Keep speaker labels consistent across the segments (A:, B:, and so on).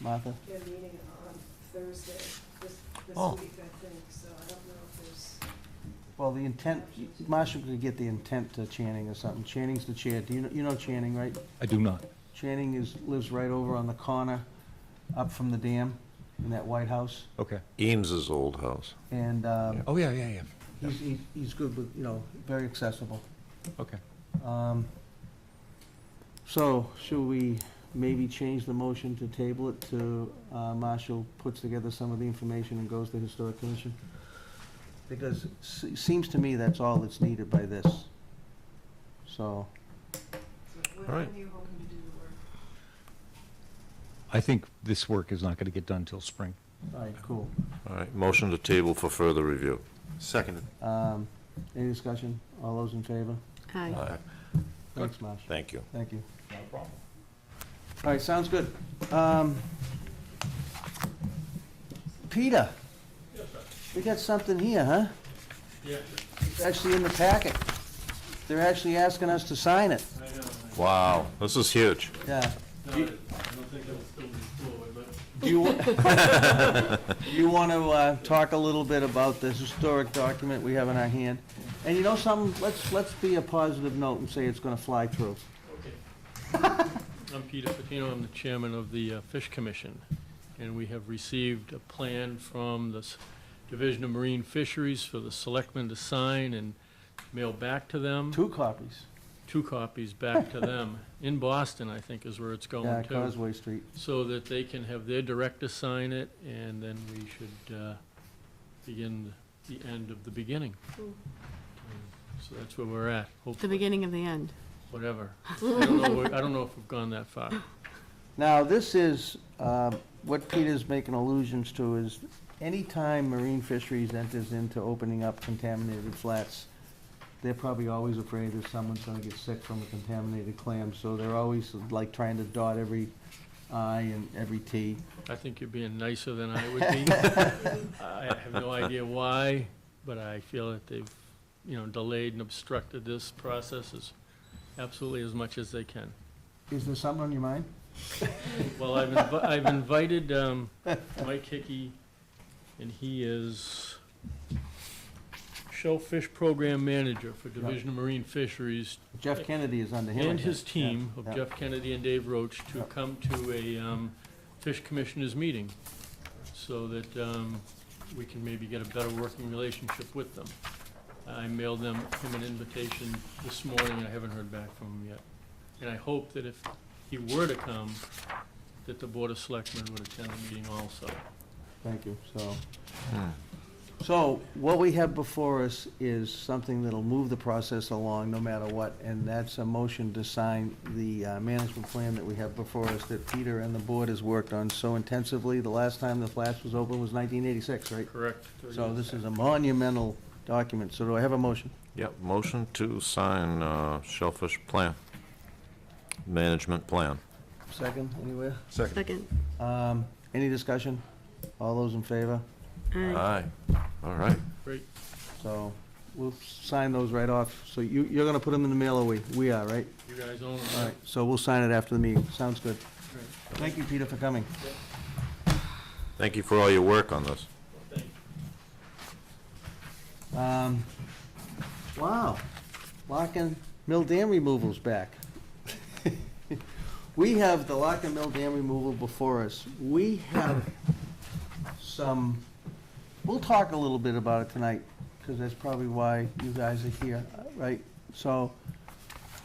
A: Martha?
B: They're meeting on Thursday, this, this
A: Oh.
B: week, I think, so I don't know if there's,
A: Well, the intent, Marshall could get the intent to Channing or something. Channing's the chair. Do you, know- you know Channing, right?
C: I do not.
A: Channing is, lives right over on the corner, up from the dam, in that White House.
C: Okay.
D: Eames's old house.
A: And, um,
C: Oh, yeah, yeah, yeah.
A: he's, he's- he's good with, you know, very accessible.
C: Okay.
A: Um, So, should we maybe change the motion to table it to uh, Marshall puts together some of the information and goes to Historic Commission? Because it se- seems to me that's all that's needed by this. So,
B: so when
D: All right.
B: when are you hoping to do the work?
C: I think this work is not going to get done till spring.
A: all right, cool.
D: All right, motion to table for further review. Seconded.
A: Um, Any discussion? All those in favor?
E: Aye.
A: Thanks, Marshall.
D: Thank you.
A: Thank you. All right, sounds good. Um, Peter? We got something here, huh? It's actually in the packet. They're actually asking us to sign it,
D: Wow, this is huge.
A: yeah.
F: No, I I don't think it'll still be full, but
A: Do you, do you want to uh, talk a little bit about this historic document we have in our hand? And you know something, let's, let's be a positive note and say it's gonna fly through.
F: Okay. I'm Peter Patino, I'm the chairman of the uh, Fish Commission, and we have received a plan from the S- Division of Marine Fisheries for the selectmen to sign and mail back to them,
A: Two copies,
F: two copies back to them, in Boston, I think, is where it's
A: yeah,
F: going to,
A: Causeway Street.
F: so that they can have their director sign it, and then we should uh, begin the end of the beginning. So that's where we're at, hopefully.
E: The beginning of the end.
F: whatever. I don't know, where- I don't know if we've gone that far.
A: Now, this is, um, what Peter's making allusions to is anytime marine fisheries enters into opening up contaminated flats, they're probably always afraid that someone's gonna get sick from a contaminated clam, so they're always like trying to dot every i and every t.
F: I think you're being nicer than I would be. I have no idea why, but I feel that they've, you know, delayed and obstructed this process as, absolutely as much as they can.
A: Is there something on your mind?
F: Well, I've, invi- I've invited, um, Mike Hickey, and he is Shellfish Program Manager for Division of Marine Fisheries,
A: Jeff Kennedy is under him. I
F: and his
A: think. Yeah,
F: team of
A: yeah.
F: Jeff Kennedy and Dave Roach to
A: Yeah.
F: come to a um, Fish Commissioners meeting so that um, we can maybe get a better working relationship with them. I mailed them, him an invitation this morning, and I haven't heard back from him yet. And I hope that if he were to come, that the Board of Selectmen would attend the meeting also.
A: Thank you, so. So, what we have before us is something that'll move the process along no matter what, and that's a motion to sign the uh, management plan that we have before us that Peter and the board has worked on so intensively. The last time the flats was open was nineteen eighty-six, right?
F: Correct?
A: So this is a monumental document, so do I have a motion?
D: Yep, motion to sign uh, Shellfish Plan, Management Plan.
A: Second, anywhere?
D: Second.
E: Second.
A: Um, any discussion? All those in favor?
E: Aye.
D: Aye, all right.
F: Great.
A: So, we'll sign those right off. So you, you're gonna put them in the mail, or we, we are, right?
F: You guys own it.
A: All right, so we'll sign it after the meeting. Sounds good.
F: Great.
A: Thank you, Peter, for coming.
D: Thank you for all your work on this.
F: Thank you.
A: Um, Wow, Lock and Mill Dam removal's back. We have the Lock and Mill Dam removal before us. We have some, we'll talk a little bit about it tonight, because that's probably why you guys are here, right? So,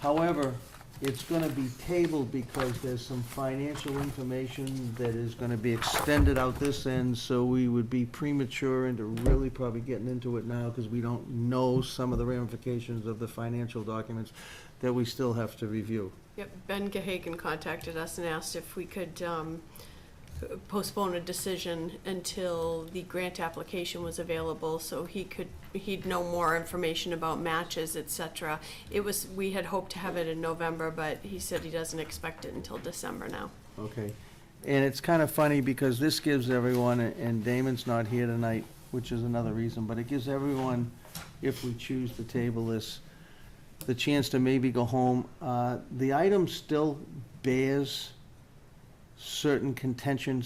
A: however, it's gonna be tabled because there's some financial information that is gonna be extended out this end, so we would be premature into really probably getting into it now, because we don't know some of the ramifications of the financial documents that we still have to review.
G: Yep, Ben Gehagan contacted us and asked if we could um, postpone a decision until the grant application was available, so he could, he'd know more information about matches, et cetera. It was, we had hoped to have it in November, but he said he doesn't expect it until December now.
A: Okay. And it's kind of funny because this gives everyone, and Damon's not here tonight, which is another reason, but it gives everyone, if we choose to table this, the chance to maybe go home. Uh, The item still bears certain contentions.